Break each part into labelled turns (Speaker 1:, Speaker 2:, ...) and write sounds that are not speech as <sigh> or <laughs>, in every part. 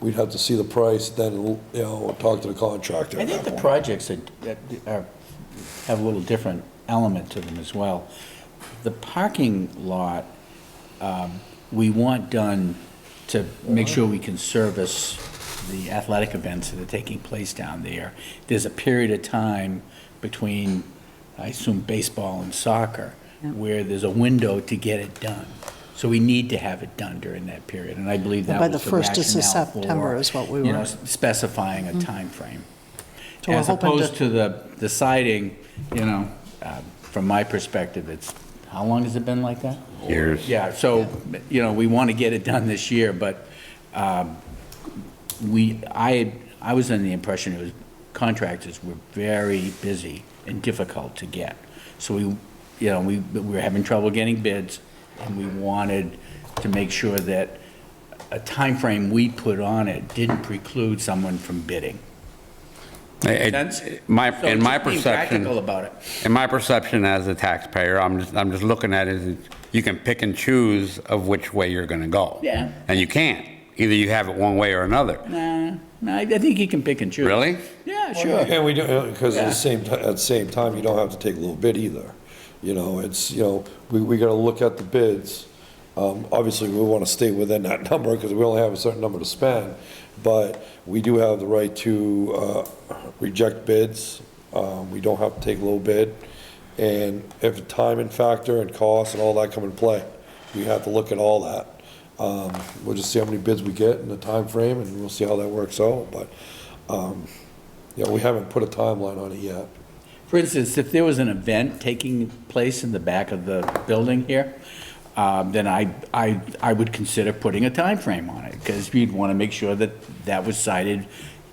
Speaker 1: We'd have to see the price, then, you know, talk to the contractor
Speaker 2: I
Speaker 1: at
Speaker 2: think
Speaker 1: that
Speaker 2: the
Speaker 1: point.
Speaker 2: projects that, that are, have a little different element to them as well. The parking lot, um, we want done to make sure we can service the athletic events that are taking place down there. There's a period of time between, I assume, baseball and soccer, where there's a window to get it done. So we need to have it done during that period, and I believe that
Speaker 3: By
Speaker 2: was
Speaker 3: the
Speaker 2: the
Speaker 3: 1st of
Speaker 2: rationale for,
Speaker 3: September is what we
Speaker 2: you
Speaker 3: were-
Speaker 2: know, specifying a timeframe.
Speaker 3: Mm. So we're
Speaker 2: As
Speaker 3: hoping to-
Speaker 2: opposed to the, the siding, you know, uh, from my perspective, it's, how long has it been like that?
Speaker 4: Years.
Speaker 2: Yeah, so, you know, we want to get it done this year, but um, we, I, I was under the impression it was, contractors were very busy and difficult to get. So we, you know, we, we were having trouble getting bids, and we wanted to make sure that a time frame we put on it didn't preclude someone from bidding.
Speaker 4: It-
Speaker 2: Sense?
Speaker 4: it- My,
Speaker 2: So
Speaker 4: in my
Speaker 2: just being Practical
Speaker 4: perception,
Speaker 2: about it.
Speaker 4: in my perception as a taxpayer, I'm just, I'm just looking at it, you can pick and choose of which way you're gonna go.
Speaker 2: Yeah.
Speaker 4: And you can't. Either you have it one way or another.
Speaker 2: Nah, nah, I I think he can pick and choose.
Speaker 4: Really?
Speaker 2: Oh, Yeah, sure.
Speaker 1: And we do, because at
Speaker 2: Yeah.
Speaker 1: the same, ti- at the same time, you don't have to take a little bid either. You know, it's, you know, we, we gotta look at the bids. Um, obviously, we wanna stay within that <laughs> number, because we only have a certain number to spend. But we do have the right to, uh, reject bids. Um, we don't have to take a little bid. And if the time and factor and cost and all that come in play, we have to look at all that. Um, we'll just see how many bids we get and the time frame, and we'll see how that works out, but, um, yeah, we haven't put a timeline on it yet.
Speaker 2: For instance, if there was an event taking place in the back of the building here, um, then I, I, I would consider putting a time frame on it, because we'd want to make sure that that was cited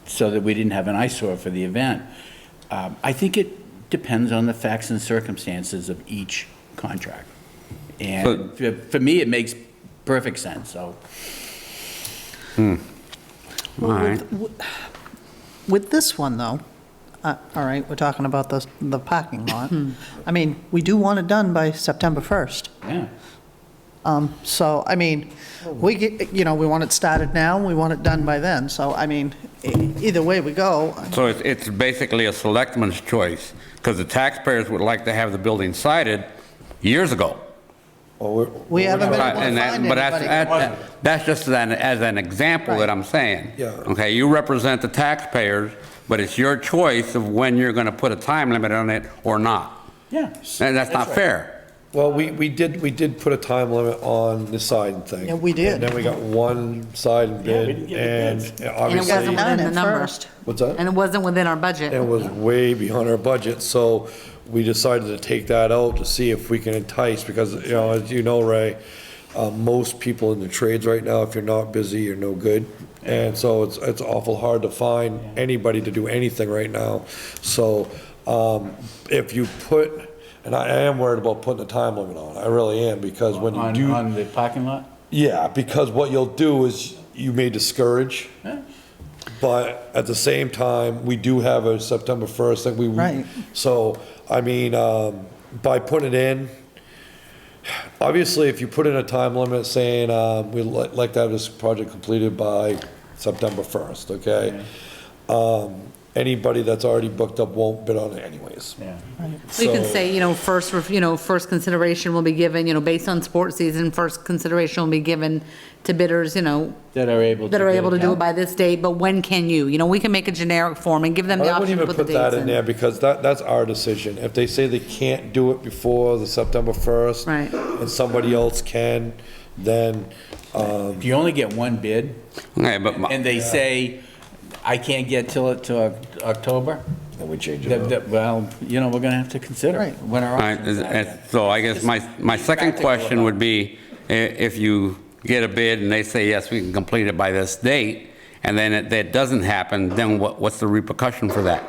Speaker 2: so that we didn't have an eyesore for the event. Um, I think it depends on the facts and circumstances of each contract. And for- for me, it makes perfect sense, so.
Speaker 4: All right.
Speaker 3: With this one, though, uh, all right, we're talking about the, the parking lot. I mean, we do want it done by September 1st.
Speaker 2: Yeah.
Speaker 3: Um, So, I mean, we, get- you know, we want it started now, we want it done by then. So, I mean, e- either way we go,
Speaker 4: So it's, it's basically a selectman's choice, because the taxpayers would like to have the building cited years ago.
Speaker 1: Well, we're-
Speaker 3: we
Speaker 1: we're not-
Speaker 3: haven't been
Speaker 4: Right,
Speaker 3: able to
Speaker 4: and that-
Speaker 3: find
Speaker 4: But that's,
Speaker 3: anybody.
Speaker 4: that- that's just an, as an example that I'm saying.
Speaker 1: Yeah.
Speaker 4: Okay, you represent the taxpayers, but it's your choice of when you're gonna put a time limit on it or not.
Speaker 2: Yeah.
Speaker 4: And that's not
Speaker 2: right.
Speaker 4: fair.
Speaker 1: Well, we, we did, we did put a time limit on the siding thing.
Speaker 3: Yeah, we did.
Speaker 1: And then we got one siding bid,
Speaker 2: didn't get
Speaker 1: and
Speaker 2: the bids.
Speaker 5: And it wasn't
Speaker 1: obviously,
Speaker 3: Done
Speaker 5: within the
Speaker 3: at
Speaker 5: number.
Speaker 3: first.
Speaker 1: What's that?
Speaker 5: And it wasn't within our
Speaker 1: it
Speaker 5: budget.
Speaker 1: was way beyond our budget, so we decided to take that out to see if we can entice, because, you know, as you know, Ray, uh, most people in the trades right now, if you're not busy, you're no good. And so it's, it's awful hard to find anybody to do anything right now. So, um, if you put, and I am worried about putting a time limit on, it. I really am, because when you
Speaker 2: On,
Speaker 1: do.
Speaker 2: on the parking lot?
Speaker 1: Yeah, because what you'll do is you may discourage,
Speaker 2: Yeah.
Speaker 1: but at the same time, we do have a September 1st that we.
Speaker 3: Right.
Speaker 1: So, I mean, um, by putting it in, obviously, if you put in a time limit saying, um, we'd li- like to have this project completed by September 1st, okay? Um, Anybody that's already booked up won't bid on it anyways.
Speaker 2: Yeah.
Speaker 5: So you can
Speaker 1: So-
Speaker 5: say, you know, first, ref- you know, first consideration will be given, you know, based on sports season, first consideration will be given to bidders, you know,
Speaker 2: That are able to.
Speaker 5: that are able to do
Speaker 2: yeah.
Speaker 5: it by this date, but when can you? You know, we can make a generic form and give them the
Speaker 1: I wouldn't
Speaker 5: option to
Speaker 1: even
Speaker 5: put the
Speaker 1: put that
Speaker 5: dates
Speaker 1: in
Speaker 5: in.
Speaker 1: there because that, that's our decision. If they say they can't do it before the September 1st.
Speaker 5: Right.
Speaker 1: And somebody else can, then,
Speaker 2: If you only get one bid,
Speaker 4: Okay, but my-
Speaker 2: and they say, I can't get till it to Oc- October,
Speaker 1: then we change
Speaker 2: that-
Speaker 1: it up.
Speaker 2: that- well, you know, we're gonna have to consider it.
Speaker 3: Right.
Speaker 2: What our
Speaker 4: All right,
Speaker 2: options
Speaker 4: is-
Speaker 2: are
Speaker 4: is-
Speaker 2: then.
Speaker 4: So I guess my, my
Speaker 2: Just be
Speaker 4: second
Speaker 2: practical
Speaker 4: question
Speaker 2: about
Speaker 4: would be, i- if you get a bid and they say, yes, we can complete it by this date, and then it- that doesn't happen, then what, what's the repercussion for that?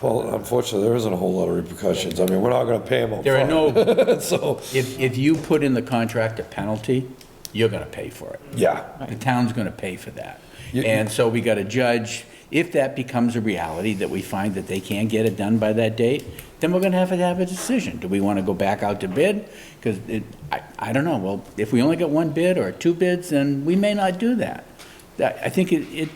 Speaker 1: Well, unfortunately, there isn't a whole lot of repercussions. I mean, we're not gonna pay them
Speaker 2: There are no,
Speaker 1: <laughs> So,
Speaker 2: if, if you put in the contract a penalty, you're gonna pay for it.
Speaker 1: yeah.
Speaker 2: The town's gonna pay for that.
Speaker 1: You-
Speaker 2: And so we gotta judge, if that becomes a reality, that we find that they can't get it done by that date, then we're gonna have to have a decision. Do we wanna go back out to bid? Because it, I, I don't know, well, if we only get one bid or two bids, then we may not do that. That, I think it, it